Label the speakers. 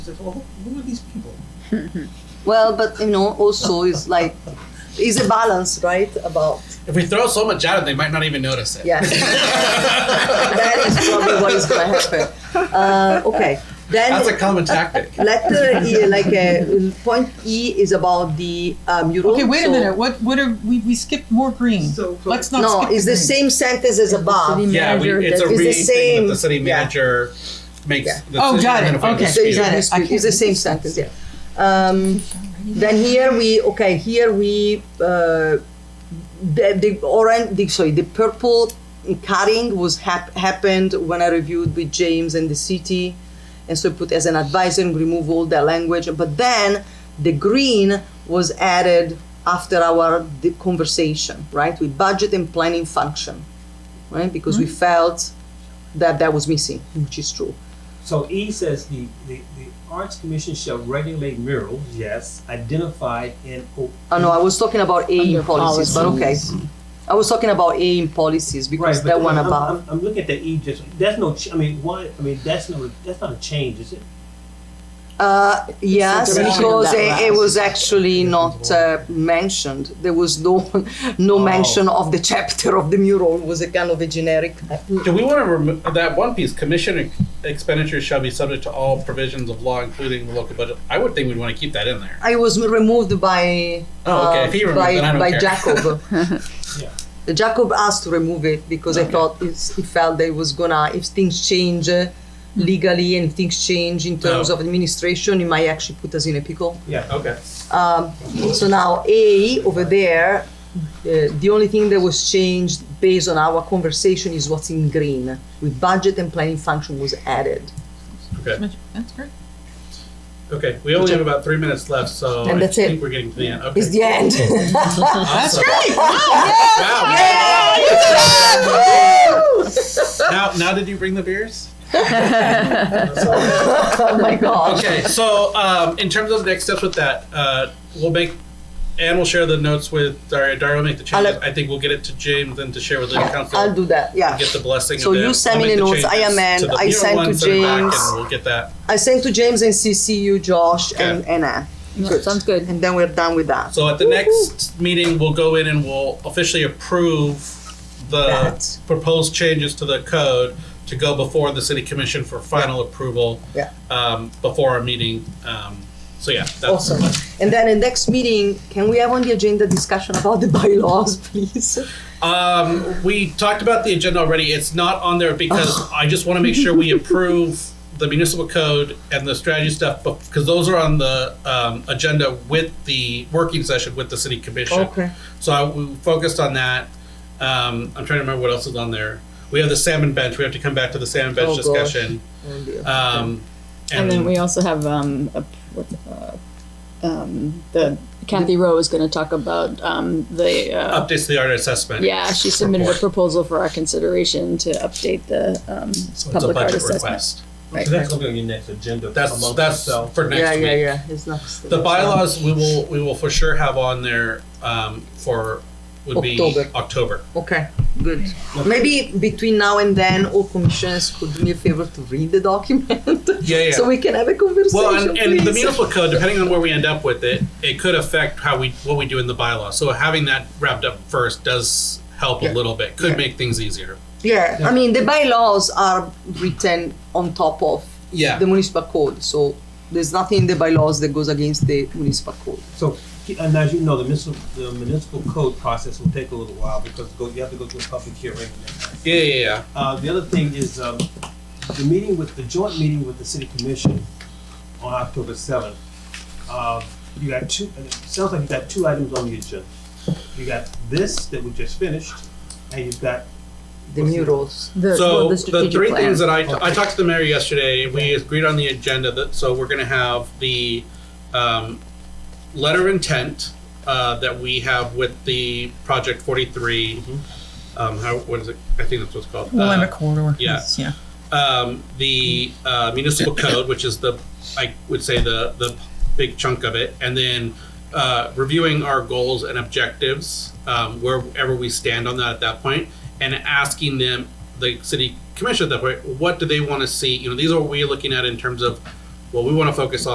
Speaker 1: It's like, well, who are these people?
Speaker 2: Well, but you know, also it's like it's a balance, right? About
Speaker 3: If we throw so much at them, they might not even notice it.
Speaker 2: yeah, that is probably what is going to happen. Uh, okay, then
Speaker 3: That's a common tactic.
Speaker 2: letter E, like uh, point E is about the uh, mural.
Speaker 4: Okay, wait a
Speaker 2: so-
Speaker 4: minute. What what are we we skipped more green?
Speaker 1: So-
Speaker 4: Let's not
Speaker 2: No,
Speaker 4: skip
Speaker 2: it's the
Speaker 4: green.
Speaker 2: same sentence as above.
Speaker 3: Yeah, we, it's
Speaker 2: that- It's
Speaker 3: a
Speaker 2: the
Speaker 3: re thing
Speaker 2: same-
Speaker 3: that the city
Speaker 2: yeah.
Speaker 3: manager makes.
Speaker 2: Yeah.
Speaker 3: the
Speaker 4: Oh,
Speaker 3: city
Speaker 4: got it.
Speaker 3: identifies
Speaker 4: Okay.
Speaker 3: the
Speaker 2: So
Speaker 4: So
Speaker 2: it's,
Speaker 3: speed.
Speaker 4: got it.
Speaker 2: it's-
Speaker 4: I
Speaker 2: it's the same sentence. Yeah. Um, then here we okay. Here we uh, the the orange. The, sorry, the purple cutting was hap- happened when I reviewed with James and the city, and so I put as an advisor and remove all that language. But then the green was added after our the conversation, right, with budget and planning function, right, because we
Speaker 4: Mm-hmm.
Speaker 2: felt that that was missing, which is true.
Speaker 1: So E says the, the, the Arts Commission shall regulate murals, yes, identified and. o-
Speaker 2: Oh no, I was talking about A in
Speaker 5: Under
Speaker 2: policies, but okay. I was talking about A in policies
Speaker 1: Right,
Speaker 2: because
Speaker 1: but
Speaker 2: that one
Speaker 1: I'm-
Speaker 2: about.
Speaker 1: I'm, I'm looking at the E just, that's no, ch- I mean, why, I mean, that's no, that's not a change, is it?
Speaker 2: Uh, yes,
Speaker 5: definition of
Speaker 2: because
Speaker 5: that
Speaker 2: it, it
Speaker 5: last.
Speaker 2: was actually not uh, mentioned. There was no no
Speaker 1: Oh.
Speaker 2: mention of the chapter of the mural. It was a kind of a generic.
Speaker 3: Do we want to remove that one piece? Commission ex- expenditures shall be subject to all provisions of law, including the local budget. I would think we'd want to keep that in there.
Speaker 2: I was removed by uh,
Speaker 3: Oh, okay. If he removed,
Speaker 2: by,
Speaker 3: then I don't
Speaker 2: by
Speaker 3: care.
Speaker 2: Jacob.
Speaker 1: Yeah.
Speaker 2: Jacob asked to remove it because I thought it's, he felt that it was gonna if things change uh,
Speaker 3: Mm.
Speaker 2: legally and things change in terms
Speaker 3: Oh.
Speaker 2: of administration, it might actually put us in a pickle.
Speaker 1: Yeah,
Speaker 3: Okay.
Speaker 2: So now A over there, uh, the only thing that was changed based on our conversation is what's in green. With budget and planning function was added.
Speaker 3: Okay.
Speaker 4: That's great.
Speaker 3: Okay. We only have about three minutes left, so
Speaker 2: And
Speaker 3: I
Speaker 2: that's
Speaker 3: think
Speaker 2: it.
Speaker 3: we're getting to the end. Okay.
Speaker 2: It's the end.
Speaker 4: That's
Speaker 3: Awesome.
Speaker 4: great.
Speaker 3: Wow. Now, now, did you bring the beers?
Speaker 2: oh my god.
Speaker 3: Okay, so um, in terms of next steps with that, uh, we'll make and we'll share the notes with Daria. Daria will make the changes.
Speaker 2: I'll-
Speaker 3: I think we'll get it to James and to share with the council.
Speaker 2: I'll do that. Yeah.
Speaker 3: Get the blessing.
Speaker 2: So
Speaker 3: of
Speaker 2: you
Speaker 3: them.
Speaker 2: send
Speaker 3: I'll
Speaker 2: me
Speaker 3: make
Speaker 2: the
Speaker 3: the
Speaker 2: notes. I
Speaker 3: changes
Speaker 2: amend.
Speaker 3: to the
Speaker 2: I
Speaker 3: mural
Speaker 2: send to
Speaker 3: one, send it back,
Speaker 2: James.
Speaker 3: and we'll get that.
Speaker 2: I sent to James and CC you, Josh, and,
Speaker 3: Okay.
Speaker 2: and Anne. Good.
Speaker 5: Sounds good.
Speaker 2: And then we're done with that.
Speaker 3: So at the next meeting, we'll go in and we'll officially approve the
Speaker 2: That.
Speaker 3: proposed changes to the code to go before the city commission for final approval.
Speaker 2: Yeah.
Speaker 3: Um, before our meeting. Um, so yeah, that's
Speaker 2: Awesome. And then in next meeting, can we have on the agenda discussion about the bylaws, please?
Speaker 3: Um, we talked about the agenda already. It's not on there
Speaker 5: Oh.
Speaker 3: because I just want to make sure we approve the municipal code and the strategy stuff because those are on the um, agenda with the working session with the city commission.
Speaker 2: Okay.
Speaker 3: So I, we focused on that. Um, I'm trying to remember what else is on there. We have the salmon bench. We have to come back to the salmon bench
Speaker 2: Oh, gosh.
Speaker 3: discussion.
Speaker 2: Oh, dear.
Speaker 3: Um,
Speaker 5: And then we also have um, a, what's, uh, um, the Kathy Rowe is going to talk about um, the uh,
Speaker 3: updates to the art assessment.
Speaker 5: yeah. She submitted a
Speaker 3: report.
Speaker 5: proposal for our consideration to update the um,
Speaker 3: So it's a
Speaker 5: public art
Speaker 3: budget
Speaker 5: assessment.
Speaker 3: request.
Speaker 5: Right.
Speaker 1: So that's gonna be on your next agenda.
Speaker 3: That's
Speaker 1: amongst
Speaker 3: that's
Speaker 1: yourself.
Speaker 3: for next
Speaker 2: yeah,
Speaker 3: week.
Speaker 2: yeah, yeah. It's not
Speaker 3: The bylaws we will we will for sure have on there um, for would
Speaker 2: October.
Speaker 3: be October.
Speaker 2: Okay, good. Maybe between now and then, all commissioners could do me a favor to read the document.
Speaker 3: Yeah, yeah.
Speaker 2: So we can have a conversation.
Speaker 3: well, and, and the
Speaker 2: please.
Speaker 3: municipal code, depending on where we end up with it, it could affect how we what we do in the bylaw. So having that wrapped up first does help
Speaker 2: Yeah.
Speaker 3: a little bit. Could
Speaker 2: Yeah.
Speaker 3: make things easier.
Speaker 2: Yeah, I mean, the bylaws are written on top of
Speaker 3: Yeah.
Speaker 2: the municipal code, so there's nothing in the bylaws that goes against the municipal code.
Speaker 1: So, and as you know, the municipal, the municipal code process will take a little while because go- you have to go through a public hearing.
Speaker 3: Yeah, yeah, yeah.
Speaker 1: Uh, the other thing is, um, the meeting with, the joint meeting with the city commission on October seventh. Uh, you got two, and it sounds like you got two items on the agenda. You got this that we just finished, and you've got,
Speaker 2: The murals.
Speaker 5: The,
Speaker 3: so
Speaker 5: well, the
Speaker 3: the,
Speaker 5: strategic
Speaker 3: three
Speaker 5: plan.
Speaker 3: things that I, I talked to the mayor yesterday we agreed on the agenda that so we're going to have the um, letter of intent uh, that we have with the project 43 um, how what is it i think that's what it's called
Speaker 4: We'll
Speaker 3: Uh,
Speaker 4: have a corridor.
Speaker 3: yeah.
Speaker 4: Yes, Yeah.
Speaker 3: um, the uh, municipal code, which is the, I would say the the big chunk of it, and then uh, reviewing our goals and objectives um, wherever we stand on that at that point, and asking them, the city commission at that point, what do they want to see? You know, these are what we're looking at in terms of What we want to focus on.